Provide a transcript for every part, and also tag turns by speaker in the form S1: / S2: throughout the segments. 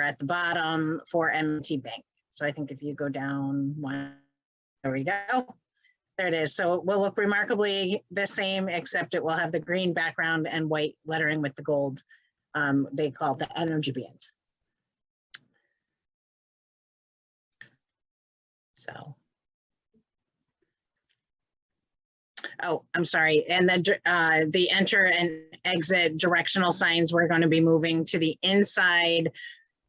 S1: at the bottom for MT Bank. So I think if you go down one, there we go. There it is. So it will look remarkably the same, except it will have the green background and white lettering with the gold. um, They call it the energy band. So. Oh, I'm sorry. And then uh, the enter and exit directional signs, we're going to be moving to the inside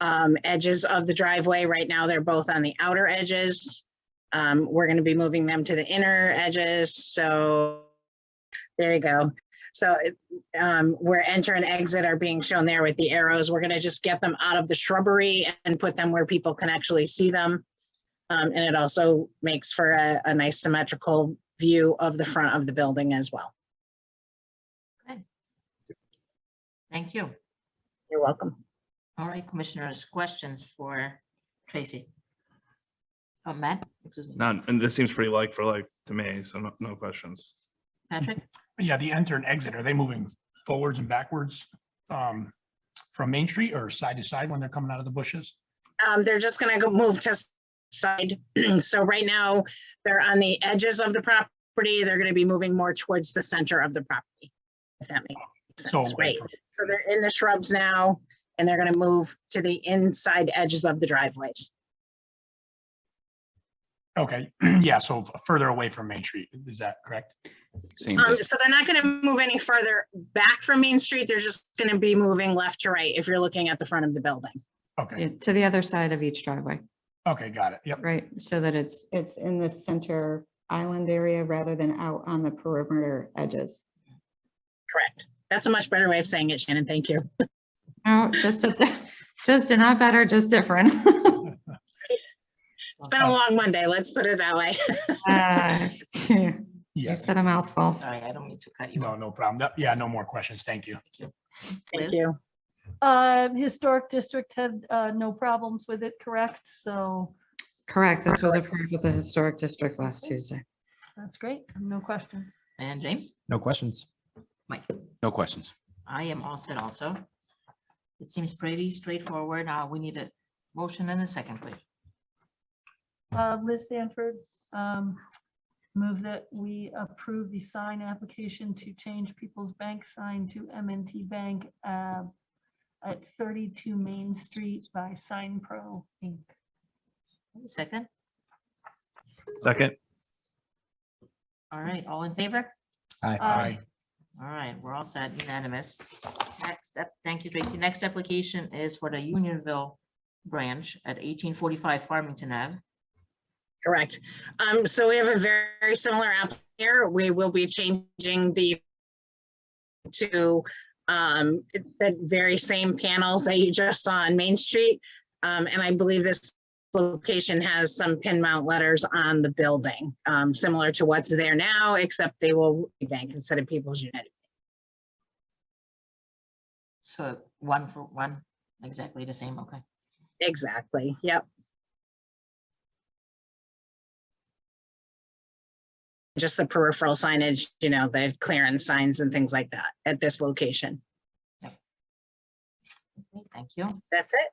S1: um, edges of the driveway. Right now, they're both on the outer edges. Um, We're going to be moving them to the inner edges. So there you go. So it- um, where enter and exit are being shown there with the arrows, we're going to just get them out of the shrubbery and put them where people can actually see them. Um, and it also makes for a, a nice symmetrical view of the front of the building as well.
S2: Thank you.
S1: You're welcome.
S2: All right, commissioners, questions for Tracy? Oh, Matt, excuse me,
S3: None, and this seems pretty like for like to me, so no, no questions.
S2: Patrick?
S4: Yeah, the enter and exit, are they moving forwards and backwards um, from Main Street or side to side when they're coming out of the bushes?
S1: Um, they're just gonna go move to s- side. So right now, they're on the edges of the property. They're gonna be moving more towards the center of the property. If that makes
S4: So
S1: sense, right? So they're in the shrubs now and they're gonna move to the inside edges of the driveways.
S4: Okay, yeah, so further away from Main Street, is that correct?
S5: Seems
S1: Um,
S5: as-
S1: so they're not gonna move any further back from Main Street. They're just gonna be moving left to right if you're looking at the front of the building.
S4: Okay,
S6: Yeah, to the other side of each driveway,
S4: okay, got it. Yep,
S6: right? So that it's,
S7: It's in the center island area rather than out on the perimeter edges.
S1: Correct. That's a much better way of saying it, Shannon. Thank you.
S6: no, just, a- just a not better, just different.
S1: It's been a long Monday. Let's put it that way.
S6: Ah, phew, You
S4: yes.
S6: said a mouthful.
S2: Sorry, I don't mean to cut you
S4: No,
S2: off.
S4: no problem. No- Yeah, no more questions. Thank you.
S1: Thank
S2: Liz?
S1: you.
S8: Uh, Historic District had uh, no problems with it, correct? So
S6: Correct. This was approved with the historic district last Tuesday.
S8: that's great. No questions.
S2: And James?
S5: No questions.
S2: Mike?
S5: No questions.
S2: I am all set also. It seems pretty straightforward. Uh, we need a motion and a second, please.
S8: Uh, Liz Sanford, um, move that we approve the sign application to change People's Bank sign to M&T Bank uh, at 32 Main Street by Sign Pro Inc.
S2: Second,
S3: Second,
S2: all right, all in favor?
S5: Um,
S4: Aye.
S2: All right, we're all set, unanimous. Next step, thank you, Tracy. Next application is for the Unionville branch at eighteen forty-five Farmington Ave.
S1: Correct. Um, so we have a very similar app here. We will be changing the to um, the very same panels that you just saw on Main Street. Um, and I believe this location has some pin mount letters on the building, um, similar to what's there now, except they will be bank instead of People's United.
S2: So one for one, exactly the same, okay.
S1: Exactly. Yep. Just the peripheral signage, you know, the clearance signs and things like that at this location.
S2: Okay, Thank you.
S1: That's it.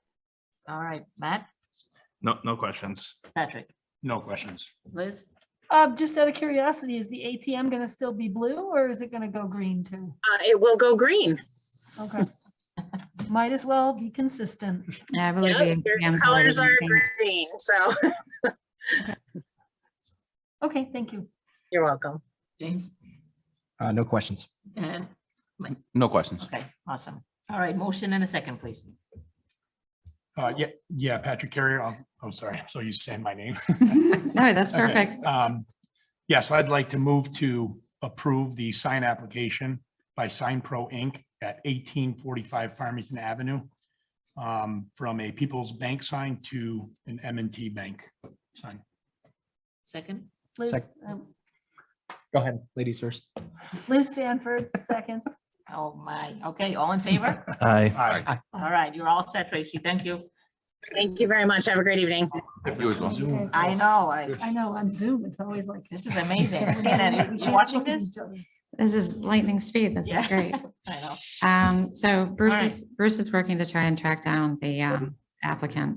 S2: All right, Matt,
S3: no, no questions.
S2: Patrick,
S4: No questions.
S2: Liz,
S8: Uh, Just out of curiosity, is the ATM going to still be blue or is it going to go green too?
S1: Uh, it will go green.
S8: Okay. Might as well be consistent.
S6: Yeah, I believe
S1: Yep,
S6: the
S1: Their
S6: ATMs
S1: colors
S6: already
S1: are
S6: changed.
S1: green, so
S8: Okay, thank you.
S1: you're welcome.
S2: James,
S5: Uh, no questions.
S2: and,
S5: No questions.
S2: okay, awesome. All right, motion and a second, please.
S4: Uh, yeah, yeah, Patrick Carrier. I'll- Oh, sorry. So you saying my name.
S6: No, that's
S4: Okay,
S6: perfect.
S4: um, Yeah, so I'd like to move to approve the sign application by Sign Pro Inc. at eighteen forty-five Farmington Avenue um, from a People's Bank sign to an M and T Bank sign.
S2: Second,
S8: Liz,
S5: Sec-
S8: um,
S5: Go ahead, ladies first.
S8: Liz Sanford, second.
S2: oh my, okay, all in favor?
S3: Aye.
S4: Aye.
S2: All right, you're all set, Tracy, thank you.
S1: Thank you very much. Have a great evening.
S5: You as well.
S4: Zoom.
S2: I know, I,
S8: I know, on Zoom, it's always like.
S2: this is amazing.
S8: We can't- we
S2: Shannon, you
S8: can't
S2: watching
S8: look at
S2: this?
S8: each other.
S6: This is lightning speed. This is
S2: Yeah.
S6: great.
S2: I know.
S6: Um, so Bruce
S2: right.
S6: is, Bruce is working to try and track down the, um, applicant.